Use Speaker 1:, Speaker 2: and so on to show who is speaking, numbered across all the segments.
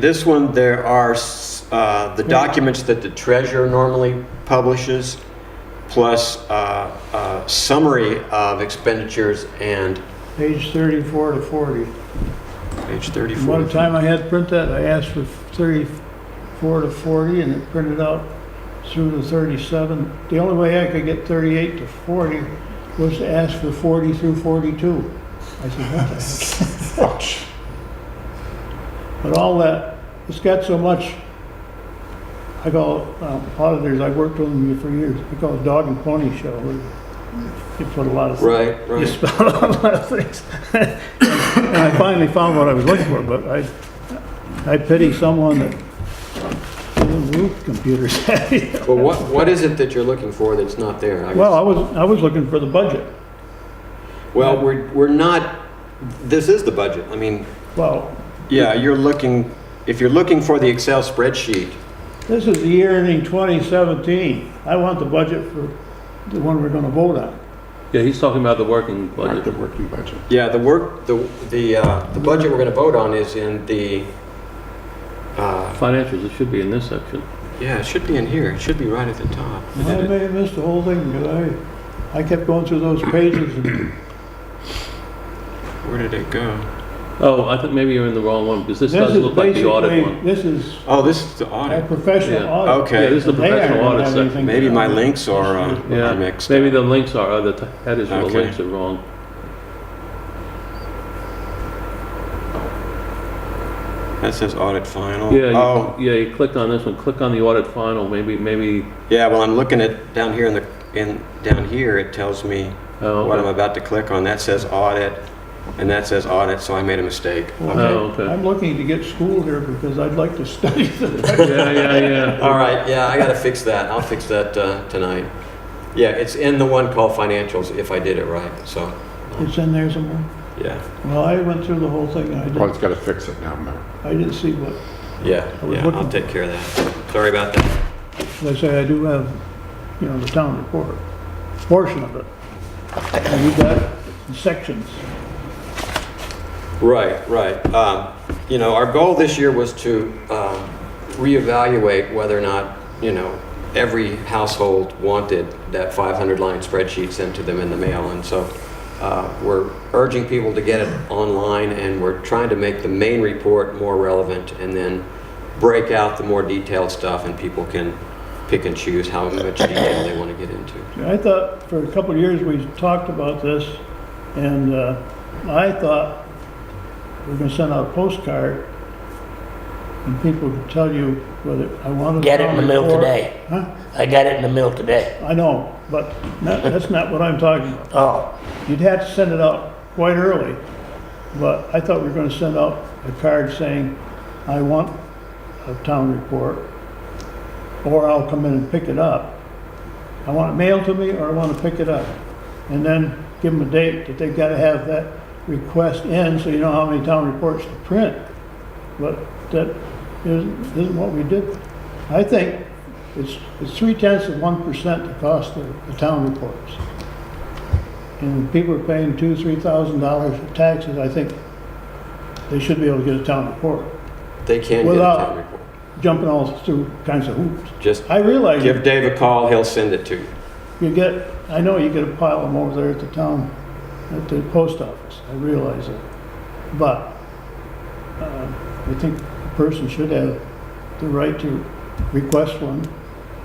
Speaker 1: This one, there are s- uh, the documents that the treasurer normally publishes, plus uh, a summary of expenditures and
Speaker 2: Page 34 to 40.
Speaker 1: page 34.
Speaker 2: One time I had to print that, I asked for 34 to 40, and it printed out through to 37. The only way I could get 38 to 40 was to ask for 40 through 42. I said, what the heck? But all that, it's got so much, I call it, um, auditors, I worked with them for years, I call it dog and pony show. You put a lot of
Speaker 1: Right,
Speaker 2: you
Speaker 1: right.
Speaker 2: spell out a lot of things. And I finally found what I was looking for, but I, I pity someone that doesn't root computers.
Speaker 1: Well, what, what is it that you're looking for that's not there? I guess-
Speaker 2: Well, I was, I was looking for the budget. uh,
Speaker 1: Well, we're, we're not, this is the budget. I mean,
Speaker 2: Well,
Speaker 1: yeah, you're looking, if you're looking for the Excel spreadsheet,
Speaker 2: this is the year ending 2017. I want the budget for the one we're gonna vote on.
Speaker 3: Yeah, he's talking about the working
Speaker 4: Not the
Speaker 3: budget.
Speaker 4: working budget.
Speaker 1: Yeah, the work, the, the, uh, the budget we're gonna vote on is in the, uh,
Speaker 3: Financials, it should be in this section.
Speaker 1: yeah, it should be in here, it should be right at the top.
Speaker 2: I may have missed the whole thing, because I, I kept going through those pages and
Speaker 1: Where did it go?
Speaker 3: Oh, I think maybe you're in the wrong one, because this
Speaker 2: this
Speaker 3: does
Speaker 2: is
Speaker 3: look like the audit
Speaker 2: basically,
Speaker 3: one.
Speaker 2: this is
Speaker 1: Oh, this is the
Speaker 2: a
Speaker 1: audit.
Speaker 2: professional
Speaker 3: Yeah.
Speaker 2: audit.
Speaker 1: Okay. Yeah,
Speaker 3: this is the
Speaker 2: They aren't
Speaker 3: professional
Speaker 2: gonna
Speaker 3: audit
Speaker 2: have
Speaker 3: section.
Speaker 2: anything to
Speaker 1: Maybe
Speaker 2: do
Speaker 1: my
Speaker 2: with it.
Speaker 1: links are, uh,
Speaker 3: Yeah,
Speaker 1: are mixed.
Speaker 3: maybe
Speaker 1: up.
Speaker 3: the links are, uh, the t- headers of the
Speaker 1: Okay.
Speaker 3: links are wrong.
Speaker 1: That says audit final.
Speaker 3: Yeah, you-
Speaker 1: Oh,
Speaker 3: yeah, you clicked on this one, click on the audit final, maybe, maybe,
Speaker 1: yeah, well, I'm looking at, down here in the, in, down here, it tells me
Speaker 3: oh,
Speaker 1: what I'm
Speaker 3: okay.
Speaker 1: about to click on. That says audit, and that says audit, so I made a mistake.
Speaker 2: Well,
Speaker 3: Oh, okay.
Speaker 2: I'm looking to get schooled here because I'd like to study the
Speaker 3: Yeah, yeah, yeah.
Speaker 1: All right, yeah, I gotta fix that. I'll fix that uh, tonight. Yeah, it's in the one called financials if I did it right, so,
Speaker 2: It's in there somewhere.
Speaker 1: yeah,
Speaker 2: Well, I went through the whole thing and I
Speaker 4: Well, it's
Speaker 2: didn't,
Speaker 4: got to fix it now, Mayor.
Speaker 2: I didn't see what,
Speaker 1: yeah,
Speaker 2: I was
Speaker 1: yeah, I'll
Speaker 2: looking-
Speaker 1: take care of that. Sorry about that.
Speaker 2: as I say, I do have, you know, the town report, portion of it. And we got it in sections.
Speaker 1: Right, right. Um, You know, our goal this year was to um, reevaluate whether or not, you know, every household wanted that 500-line spreadsheet sent to them in the mail, and so uh, we're urging people to get it online, and we're trying to make the main report more relevant, and then break out the more detailed stuff, and people can pick and choose how much detail they want to get into.
Speaker 2: I thought for a couple of years we talked about this and uh, I thought we're gonna send out a postcard and people could tell you whether I wanted.
Speaker 5: Get it in the mail
Speaker 2: report-
Speaker 5: today.
Speaker 2: Huh?
Speaker 5: I got it in the mail today.
Speaker 2: I know, but not- that's not what I'm talking about.
Speaker 5: Oh,
Speaker 2: You'd have to send it out quite early, but I thought we were gonna send out a card saying, I want a town report, or I'll come in and pick it up. I want it mailed to me, or I wanna pick it up. And then give them a date that they've gotta have that request in, so you know how many town reports to print. But that isn't, isn't what we did. I think it's, it's three tenths of one percent the cost of the town reports. And people are paying two, three thousand dollars for taxes, I think they should be able to get a town report,
Speaker 1: They can get a
Speaker 2: Without-
Speaker 1: town report.
Speaker 2: jumping all through kinds of hoops.
Speaker 1: Just
Speaker 2: I realize
Speaker 1: give Dave a call, he'll send it to you.
Speaker 2: you get, I know you get a pile of them over there at the town, at the post office, I realize that. But, uh, I think a person should have the right to request one.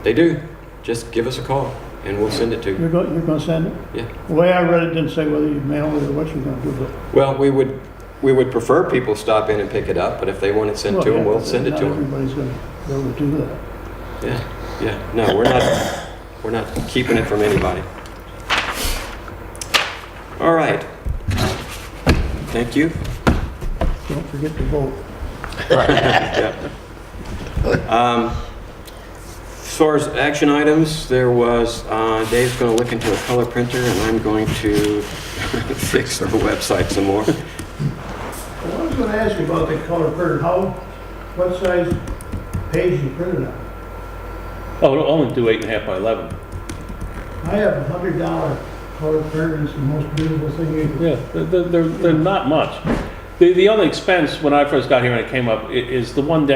Speaker 1: They do. Just give us a call and we'll send it to you.
Speaker 2: You're going, you're gonna send it?
Speaker 1: Yeah.
Speaker 2: The way I read it didn't say whether you mail it or what you're gonna do, but
Speaker 1: Well, we would, we would prefer people stop in and pick it up, but if they want it sent to them, we'll send it to them.
Speaker 2: Not everybody's gonna be able to do that.
Speaker 1: Yeah, yeah. No, we're not, we're not keeping it from anybody. All right. Thank you.
Speaker 2: Don't forget to vote.
Speaker 1: Yeah. Um, As far as action items, there was, uh, Dave's going to look into a color printer and I'm going to fix the website some more.
Speaker 2: I was gonna ask you about the color printer, how, what size page you printed on?
Speaker 3: Oh, it'll only do eight and a half by 11.
Speaker 2: I have a hundred dollar color printer, it's the most beautiful thing you
Speaker 3: Yeah, they're, they're, they're not much. The- The, the only expense, when I first got here and it came up, i- is the one down